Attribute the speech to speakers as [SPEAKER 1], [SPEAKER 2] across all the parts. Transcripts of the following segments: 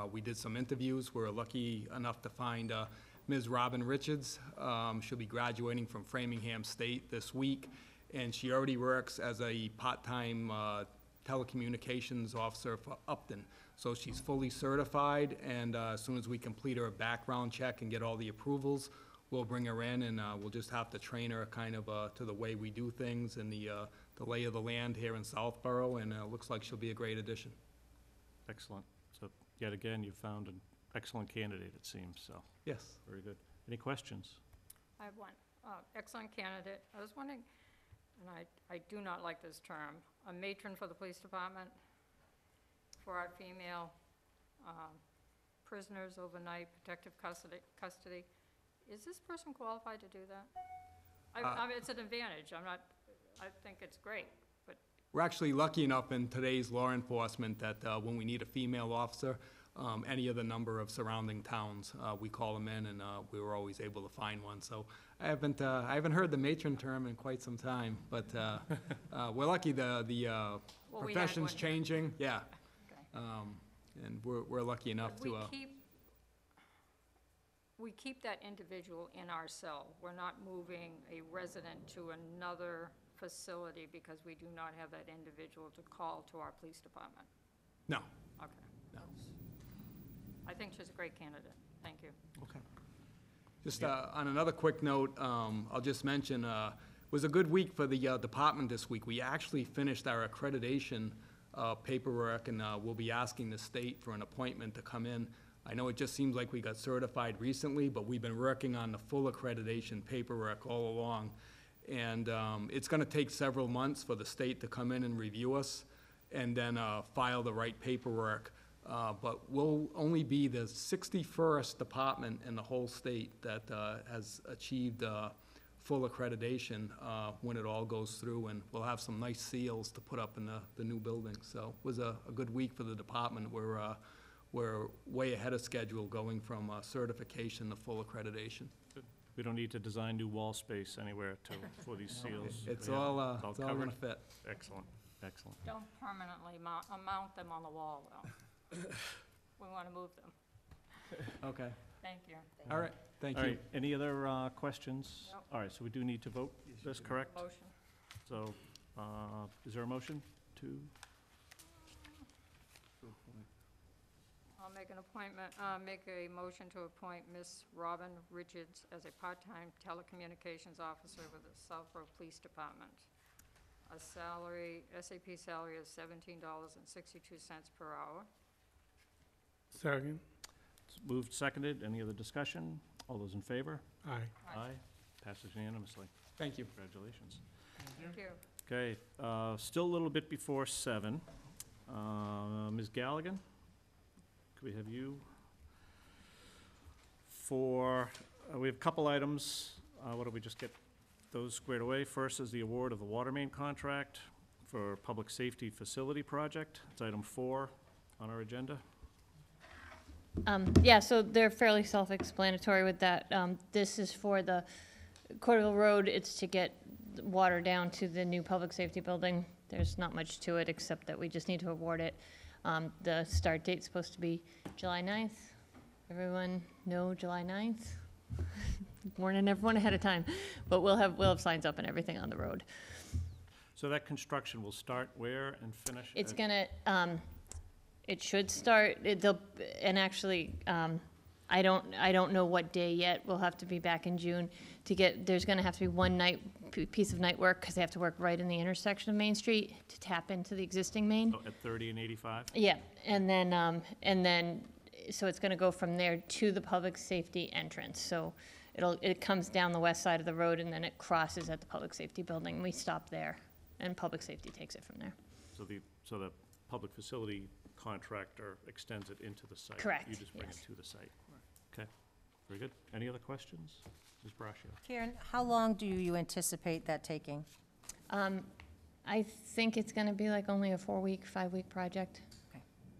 [SPEAKER 1] Uh, We did some interviews. We were lucky enough to find uh, Ms. Robin Richards. Um, She'll be graduating from Framingham State this week, and she already works as a part-time uh, telecommunications officer for Upton. So she's fully certified, and uh, as soon as we complete her background check and get all the approvals, we'll bring her in, and uh, we'll just have to train her kind of uh, to the way we do things and the uh, the lay of the land here in Southborough, and uh, it looks like she'll be a great addition.
[SPEAKER 2] Excellent. So yet again, you found an excellent candidate, it seems, so,
[SPEAKER 1] Yes.
[SPEAKER 2] very good. Any questions?
[SPEAKER 3] I have one. Uh, Excellent candidate. I was wondering, and I, I do not like this term, a matron for the police department for our female um, prisoners overnight protective custody, custody. Is this person qualified to do that? I,
[SPEAKER 1] Uh,
[SPEAKER 3] I mean, it's an advantage. I'm not, I think it's great, but
[SPEAKER 1] We're actually lucky enough in today's law enforcement that uh, when we need a female officer, um, any of the number of surrounding towns, uh, we call them in, and uh, we were always able to find one. So I haven't, uh, I haven't heard the matron term in quite some time, but uh, uh, we're lucky the, the uh,
[SPEAKER 3] Well, we had
[SPEAKER 1] profession's
[SPEAKER 3] one.
[SPEAKER 1] changing, yeah.
[SPEAKER 3] Okay.
[SPEAKER 1] Um, And we're, we're lucky enough
[SPEAKER 3] But
[SPEAKER 1] to, uh,
[SPEAKER 3] We keep, we keep that individual in our cell. We're not moving a resident to another facility because we do not have that individual to call to our police department.
[SPEAKER 1] no.
[SPEAKER 3] Okay.
[SPEAKER 1] No.
[SPEAKER 3] That's- I think she's a great candidate. Thank you.
[SPEAKER 1] Okay. Just uh, on another quick note, um, I'll just mention, uh, it was a good week for the uh, department this week. We actually finished our accreditation uh, paperwork, and uh, we'll be asking the state for an appointment to come in. I know it just seems like we got certified recently, but we've been working on the full accreditation paperwork all along. And um, it's going to take several months for the state to come in and review us and then uh, file the right paperwork. Uh, But we'll only be the 61st department in the whole state that uh, has achieved uh, full accreditation uh, when it all goes through, and we'll have some nice seals to put up in the, the new building. So it was a, a good week for the department. We're, uh, we're way ahead of schedule going from uh, certification to full accreditation.
[SPEAKER 2] We don't need to design new wall space anywhere to, for these seals.
[SPEAKER 1] It's
[SPEAKER 2] We have-
[SPEAKER 1] all, uh,
[SPEAKER 2] it's all
[SPEAKER 1] it's all gonna
[SPEAKER 2] covered.
[SPEAKER 1] fit.
[SPEAKER 2] Excellent, excellent.
[SPEAKER 3] Don't permanently mount, uh, mount them on the wall, though. We want to move them.
[SPEAKER 1] Okay,
[SPEAKER 3] Thank you.
[SPEAKER 1] all right, thank
[SPEAKER 2] All
[SPEAKER 1] you.
[SPEAKER 2] right, any other uh, questions?
[SPEAKER 3] Nope.
[SPEAKER 2] All right, so we do need to vote, this correct?
[SPEAKER 3] Motion.
[SPEAKER 2] So, uh, is there a motion to,
[SPEAKER 3] I'll make an appointment, uh, make a motion to appoint Miss Robin Richards as a part-time telecommunications officer with the Southborough Police Department. A salary, SAP salary of seventeen dollars and sixty-two cents per hour.
[SPEAKER 4] Second.
[SPEAKER 2] it's moved, seconded, any other discussion? All those in favor?
[SPEAKER 4] Aye.
[SPEAKER 3] Aye.
[SPEAKER 2] Passes unanimously,
[SPEAKER 1] Thank you.
[SPEAKER 2] congratulations.
[SPEAKER 3] Thank you.
[SPEAKER 2] Okay, uh, still a little bit before seven. Uh, Ms. Galligan, could we have you? For, uh, we have a couple items. Uh, Why don't we just get those squared away? First is the award of the water main contract for Public Safety Facility Project. It's item four on our agenda.
[SPEAKER 5] Um, yeah, so they're fairly self-explanatory with that. Um, this is for the Corderville Road, it's to get the water down to the new public safety building. There's not much to it, except that we just need to award it. Um, the start date's supposed to be July 9th. Everyone know July 9th? Warning everyone ahead of time, but we'll have, we'll have signs up and everything on the road.
[SPEAKER 2] So that construction will start where and finish?
[SPEAKER 5] It's
[SPEAKER 2] at-
[SPEAKER 5] gonna, um, it should start, it, they'll, and actually, um, I don't, I don't know what day yet, we'll have to be back in June to get, there's gonna have to be one night, p- piece of night work, because they have to work right in the intersection of Main Street to tap into the existing main.
[SPEAKER 2] oh, At 30 and 85?
[SPEAKER 5] Yeah, and then, um, and then, so it's gonna go from there to the public safety entrance, so it'll, it comes down the west side of the road and then it crosses at the public safety building, we stop there, and public safety takes it from there.
[SPEAKER 2] So the, so the public facility contractor extends it into the site? You
[SPEAKER 5] Correct,
[SPEAKER 2] just bring it
[SPEAKER 5] yes.
[SPEAKER 2] to the site? Okay, very good. Any other questions? Ms. Brascio?
[SPEAKER 6] Karen, how long do you anticipate that taking?
[SPEAKER 5] Um, I think it's gonna be like only a four-week, five-week project.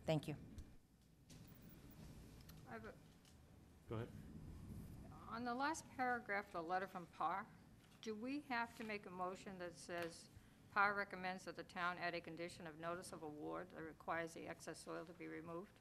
[SPEAKER 6] Thank you.
[SPEAKER 3] I have a-
[SPEAKER 2] Go ahead.
[SPEAKER 3] On the last paragraph, the letter from PAR, do we have to make a motion that says, PAR recommends that the town add a condition of notice of award that requires the excess soil to be removed?